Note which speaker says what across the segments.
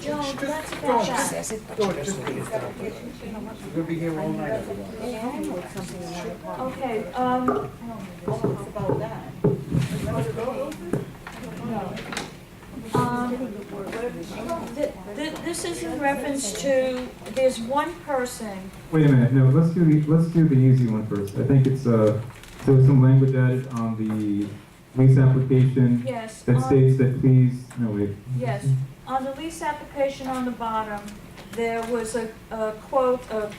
Speaker 1: Just, just go on. Go on, just finish that. We're gonna be here all night, everyone.
Speaker 2: Okay, um,
Speaker 3: about that.
Speaker 2: um, th- th- this is in reference to, there's one person,
Speaker 4: Wait a minute, no, let's do the, let's do the easy one first. I think it's, uh, there was some language added on the lease application
Speaker 2: yes,
Speaker 4: that
Speaker 2: on,
Speaker 4: states that please, no, wait.
Speaker 2: yes. On the lease application on the bottom, there was a, a quote, a,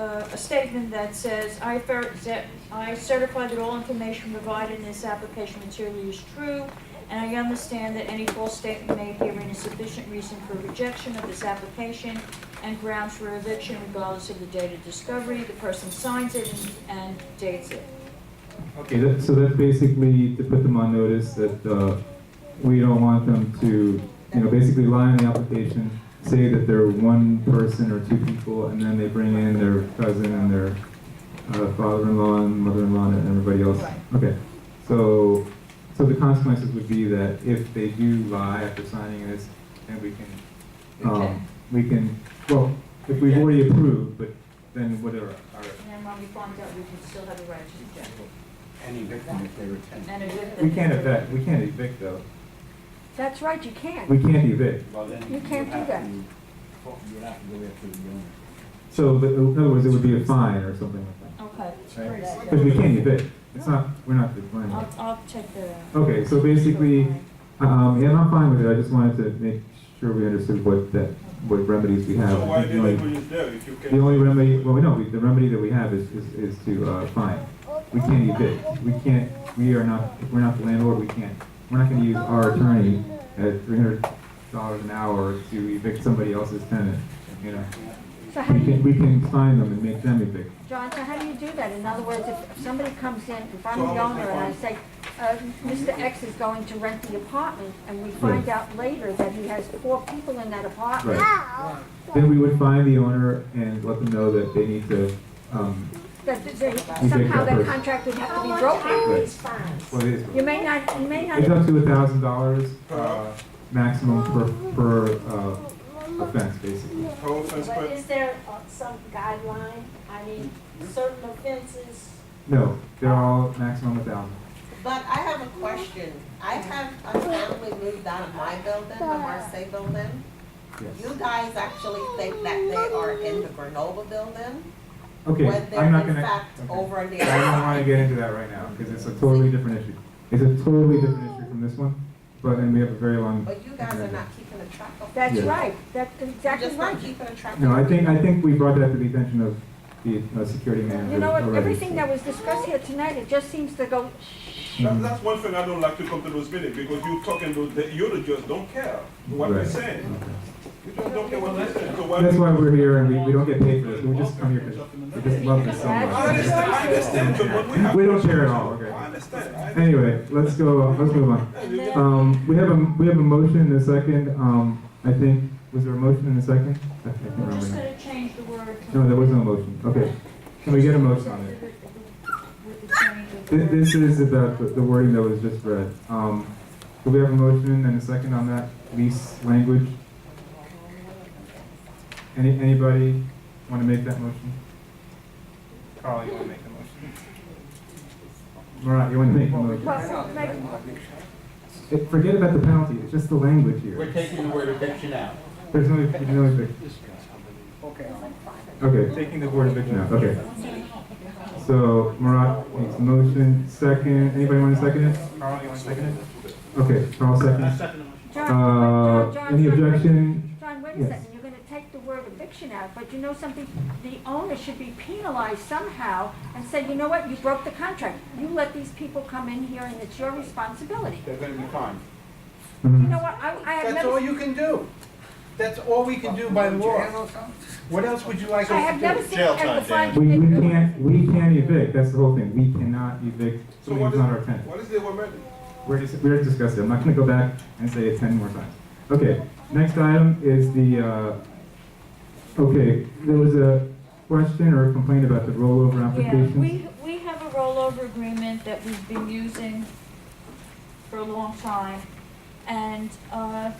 Speaker 2: a a statement that says, I fer- that I certify that all information provided in this application material is true, and I understand that any false statement made herein is sufficient reason for rejection of this application and grounds for eviction regardless of the date of discovery. The person signs it and and dates it.
Speaker 4: Okay, that, so that's basically to put them on notice that, uh, we don't want them to, you know, basically lie on the application, say that they're one person or two people, and then they bring in their cousin and their, uh, father-in-law and mother-in-law and everybody else. Okay, so, so the consequences would be that if they do lie after signing this, then we can, um, we can, well, if we've already approved, but then whatever, our
Speaker 2: And then when we find out, we can still have a right to reject.
Speaker 1: Any victim if they were ten.
Speaker 2: And evict them.
Speaker 4: We can't evict, we can't evict though.
Speaker 5: That's right, you can.
Speaker 4: We can't evict.
Speaker 1: Well, then.
Speaker 5: You can't
Speaker 1: you'd have
Speaker 5: do that.
Speaker 1: to- You would have to go after the owner.
Speaker 4: So, but in other words, it would be a fine or something like
Speaker 2: Okay,
Speaker 4: that, right? Because we can't evict. It's not, we're not declining.
Speaker 2: I'll, I'll check that out.
Speaker 4: Okay, so basically, um, and I'm fine with it, I just wanted to make sure we understood what that, what remedies we have.
Speaker 6: So why did they put it there if you
Speaker 4: The
Speaker 6: can?
Speaker 4: only remedy, well, we know, we- the remedy that we have is, is, is to, uh, fine. We can't evict, we can't, we are not, we're not the landlord, we can't, we're not gonna use our attorney at three hundred dollars an hour to evict somebody else's tenant, you know?
Speaker 5: So how
Speaker 4: We
Speaker 5: do
Speaker 4: can,
Speaker 5: you,
Speaker 4: we can fine them and make them evict.
Speaker 5: John, so how do you do that? In other words, if if somebody comes in, if I'm the owner and I say, uh, Mr. X is going to rent the apartment, and we find out later that he has four people in that apartment,
Speaker 4: Right. Then we would find the owner and let them know that they need to, um,
Speaker 5: that th- they-
Speaker 4: You take
Speaker 5: somehow
Speaker 4: that
Speaker 5: that
Speaker 4: first.
Speaker 5: contract would have to be broken.
Speaker 4: right. What it is.
Speaker 5: You may not, you may
Speaker 4: It's
Speaker 5: not,
Speaker 4: up to a thousand dollars, uh, maximum per, per, uh, offense, basically.
Speaker 6: Pro offense,
Speaker 7: But
Speaker 6: but
Speaker 7: is there uh, some guideline? I mean, certain offenses,
Speaker 4: No, they're all maximum a thousand.
Speaker 3: But I have a question. I have a family moved out of my building, the Marseille building.
Speaker 4: Yes.
Speaker 3: You guys actually think that they are in the Grenoble building?
Speaker 4: Okay,
Speaker 3: When
Speaker 4: I'm
Speaker 3: they're
Speaker 4: not
Speaker 3: in
Speaker 4: gonna,
Speaker 3: fact
Speaker 4: okay.
Speaker 3: over there.
Speaker 4: I don't wanna get into that right now, because it's a totally different issue. It's a totally different issue from this one, but, and we have a very long,
Speaker 3: But you guys are not keeping a track of.
Speaker 5: that's
Speaker 4: Yeah.
Speaker 5: right, that's
Speaker 3: You're
Speaker 5: exactly
Speaker 3: just not
Speaker 5: right.
Speaker 3: keeping a track of.
Speaker 4: no, I think, I think we brought that to the attention of the, uh, security manager
Speaker 5: You know what,
Speaker 4: already.
Speaker 5: everything that was discussed here tonight, it just seems to go,
Speaker 4: Mm-hmm.
Speaker 6: that,
Speaker 4: Um,
Speaker 6: that's one thing I don't like to come to those meetings because you talking to the, you the judge don't care what we're
Speaker 4: Right.
Speaker 6: saying. You just don't care what we're saying. So why?
Speaker 4: That's why we're here and we, we don't get paid for this, we just come here because we just love this so
Speaker 6: I
Speaker 4: much.
Speaker 6: understand, I understand, but what we have.
Speaker 4: We don't care at all,
Speaker 6: I
Speaker 4: okay.
Speaker 6: understand. I understand.
Speaker 4: Anyway, let's go, let's move on.
Speaker 2: And then-
Speaker 4: Um, we have a, we have a motion and a second, um, I think, was there a motion and a second? I can't
Speaker 2: We're
Speaker 4: remember
Speaker 2: just
Speaker 4: now.
Speaker 2: gonna change the word. to-
Speaker 4: No, there was no motion, okay. Can we get a motion on it?
Speaker 2: With the change of the
Speaker 4: Thi-
Speaker 2: word.
Speaker 4: This is about the the wording that was just read. Um, do we have a motion and a second on that lease language? Any, anybody want to make that motion? Carl, you want to make the motion? Marat, you want to make the motion?
Speaker 5: well, like,
Speaker 4: Eh, Forget about the penalty, it's just the language
Speaker 8: We're
Speaker 4: here.
Speaker 8: taking the word eviction out.
Speaker 4: There's no, no eviction. Okay, taking the word eviction out, okay. So Marat makes a motion, second, anybody want to second it? Carl, you want to second it? Okay, Carl seconds.
Speaker 5: John,
Speaker 4: Uh,
Speaker 5: John, John.
Speaker 4: any
Speaker 5: John,
Speaker 4: objection?
Speaker 5: John, wait a
Speaker 4: Yes.
Speaker 5: second, you're gonna take the word eviction out, but you know something, the owner should be penalized somehow and say, you know what, you broke the contract. You let these people come in here and it's your responsibility.
Speaker 1: They're gonna be fined.
Speaker 5: You
Speaker 4: Mhm.
Speaker 5: know what, I, I have
Speaker 1: That's all
Speaker 5: never,
Speaker 1: you can do. That's all we can do by law. What else would you like
Speaker 5: I
Speaker 1: us
Speaker 5: have
Speaker 1: to
Speaker 5: never
Speaker 1: do?
Speaker 5: seen a fine.
Speaker 4: We, we can't, we can't evict, that's the whole thing, we cannot evict
Speaker 6: So
Speaker 4: somebody
Speaker 6: what
Speaker 4: who's
Speaker 6: is,
Speaker 4: not our tenant.
Speaker 6: what is the word?
Speaker 4: We're just, we're discussing, I'm not gonna go back and say it ten more times. Okay, next item is the, uh, okay, there was a question or a complaint about the rollover
Speaker 2: Yeah,
Speaker 4: applications.
Speaker 2: we, we have a rollover agreement that we've been using for a long time. And, uh,